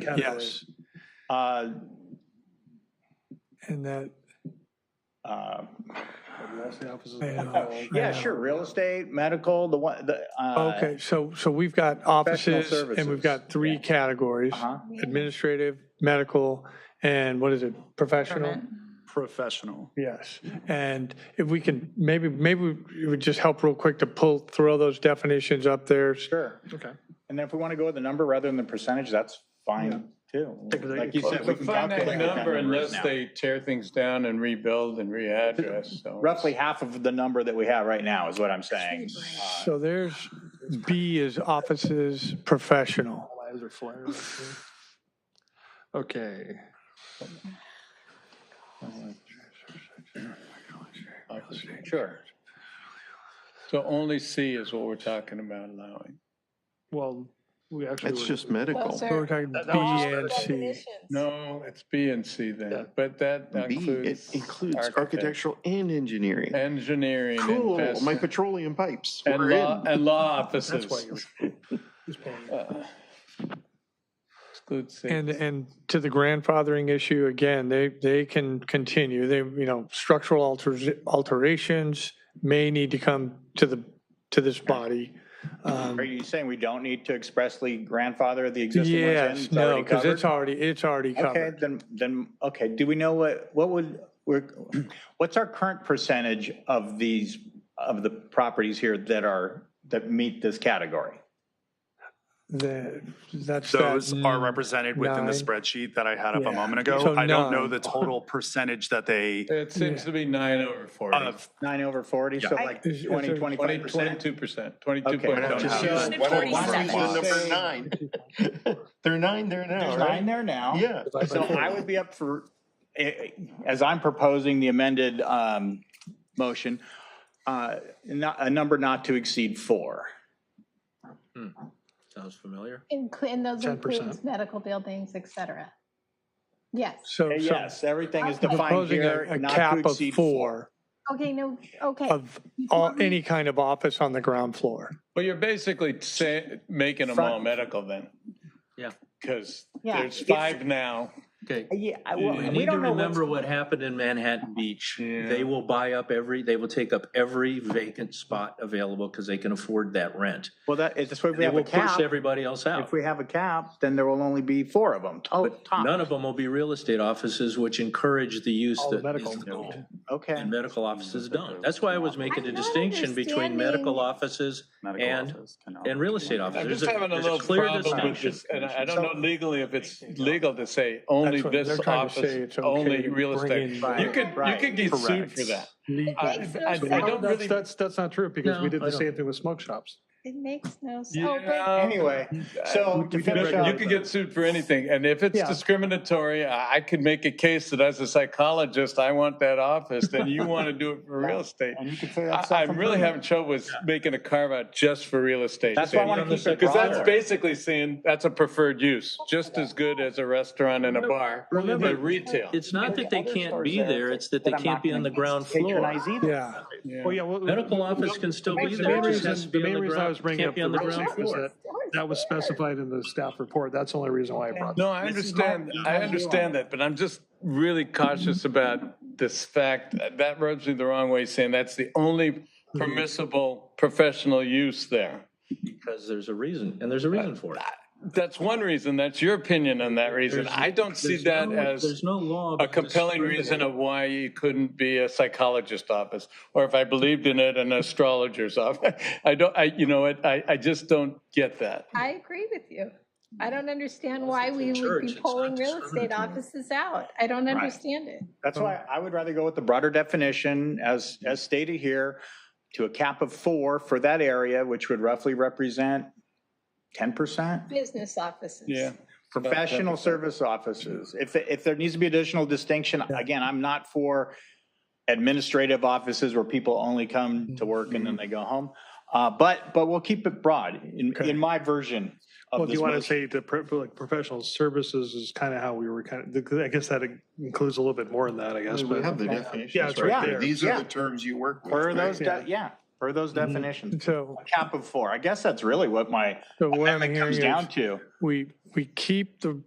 category. Yes. Uh, And that, uh, that's the offices. uh, Yeah, sure, real estate, medical, the one, the. uh, Okay, so, so we've got offices and we've services. got three categories, Uh-huh, administrative, medical, and what is it, professional? Professional. Yes, and if we can, maybe, maybe it would just help real quick to pull, throw those definitions up there. sure. Okay. And then if we want to go with the number rather than the percentage, that's fine too. Like you said, we It's a can finite calculate that number numbers unless now. they tear things down and rebuild and readdress, so. Roughly half of the number that we have right now is what I'm saying. Uh, So there's, B is offices, professional. Flags or flares. Okay. Sure. So only C is what we're talking about allowing. Well, we actually. That's were- just medical. So We're talking That- B that was- and C. No, it's B and C Yeah. then, but that B, it includes. includes architect- architectural and engineering. Engineering. and Cool, pest- my petroleum pipes. And We're law, in. and law That's why offices. you were. Uh, Excludes C. And, and to the grandfathering issue, again, they, they can continue. They, you know, structural alters, alterations may need to come to the, to this body. Um, Uh, Are you saying we don't need to expressly grandfather the existing ones in? Yes, It's already no, because it's covered? already, it's already Okay, covered. then, then, okay, do we know what, what would, we're, what's our current percentage of these, of the properties here that are, that meet this category? That, that's. that Those are n- represented within nine. the spreadsheet that I had up Yeah. a moment So ago. I don't know nine. the total percentage that they, It seems Yeah. to be nine over forty. of, Nine over 40, so Yeah. like Is- is 20, there- 25 Twenty, percent? twenty-two percent, twenty-two Okay. point I one. don't Just have use it. why don't we Why don't use the you number say- nine? They're nine there There's now, nine right? there now. Yeah. So I would be up for, eh, as I'm proposing the amended um, motion, uh, not- a number not to exceed four. Sounds familiar. Inclu- And those 10%. includes medical buildings, et cetera. Yes. So, Eh, so Yes, everything is defined proposing here, a, a not to cap of exceed four. four Okay, no, okay. of all, any kind of office on the ground floor. Well, you're basically say, making them all Front- medical then. Yeah. Because Yeah. there's five now. Okay. Yeah, I- well, We we need to don't know what's remember what happened in Manhattan Beach. They will buy up every, they will take up every vacant spot available because they can afford that rent. Well, that is this way. If we They have a will push cap. everybody else out. If we have a cap, then there will only be four of them. To- But top. none of them will be real estate offices, which encourage the use All that the is medical. the goal. Okay. And medical offices don't. That's why I was making a I'm not distinction between understanding- medical offices and, and real estate I'm offices. just There's a- having a there's a little clear problem with distinction. this, and I I don't know legally if it's legal to say only That's what they're this trying to say, office, it's okay only to real bring estate. in- You could, you Right. could get sued Correct. for that. Legal. I- Makes I- I no don't sense. That's, really- that's, that's not true because No, we did I the same don't. thing with smoke shops. It makes no sense. Oh, but Yeah. Anyway, so to we did finish regulate You up, could get sued for anything, and if it's Yeah. discriminatory, I I could make a case that as a psychologist, I want that office, then you want to do it for real estate. and you could say I- that's I'm really having trouble with making a carve out just for real estate. That's why I want Sandy. to keep it Because that's broader. basically saying that's a preferred use, just as good as a restaurant and a bar. Remember- but retail. It's not that they can't be there, it's that they But I'm can't not be on gonna the ground floor. patronize either. Yeah. Yeah. Well, yeah. well, Medical the- office can still be The there, main it just has reason, to be the on main the reason I ground- was bringing can't up be the on the roof ground is floor. that that was specified in the staff report. That's the only reason why I brought that. No, I understand, I understand that, but I'm just really cautious about this fact. That rubs me the wrong way, saying that's the only permissible professional use there. Because there's a reason, and there's a reason for it. That's one reason, that's your opinion on that reason. There's- I don't see there's that no- as There's no law. a compelling reason of why you couldn't be a psychologist office, or if I believed in it, an astrologer's office. I don't, I, you know, what, I, I just don't get that. I agree with you. I don't understand why it's a we would church, be it's not pulling real estate discriminatory. offices out. I don't understand it. That's Hmm. why I would rather go with the broader definition as, as stated here to a cap of four for that area, which would roughly represent 10%. Business offices. Yeah. Professional service offices. If, if there needs to be additional distinction, again, I'm not for administrative offices where people only come to work Mm-hmm. and then they go home. Uh, but, but we'll keep it broad in, Okay. in my version Well, of do you this want to motion. say the pro- like professional services is kind of how we were kind of, I guess that includes a little bit more than that, I guess. We but- have the Yeah, definitions it's right right there. there. These are Yeah. the terms you work with. Per those, right? de- yeah, per those Mm-hmm. definitions. So, A cap of four. I guess that's really what my so what I'm amendment hearing comes is down to. we, we keep the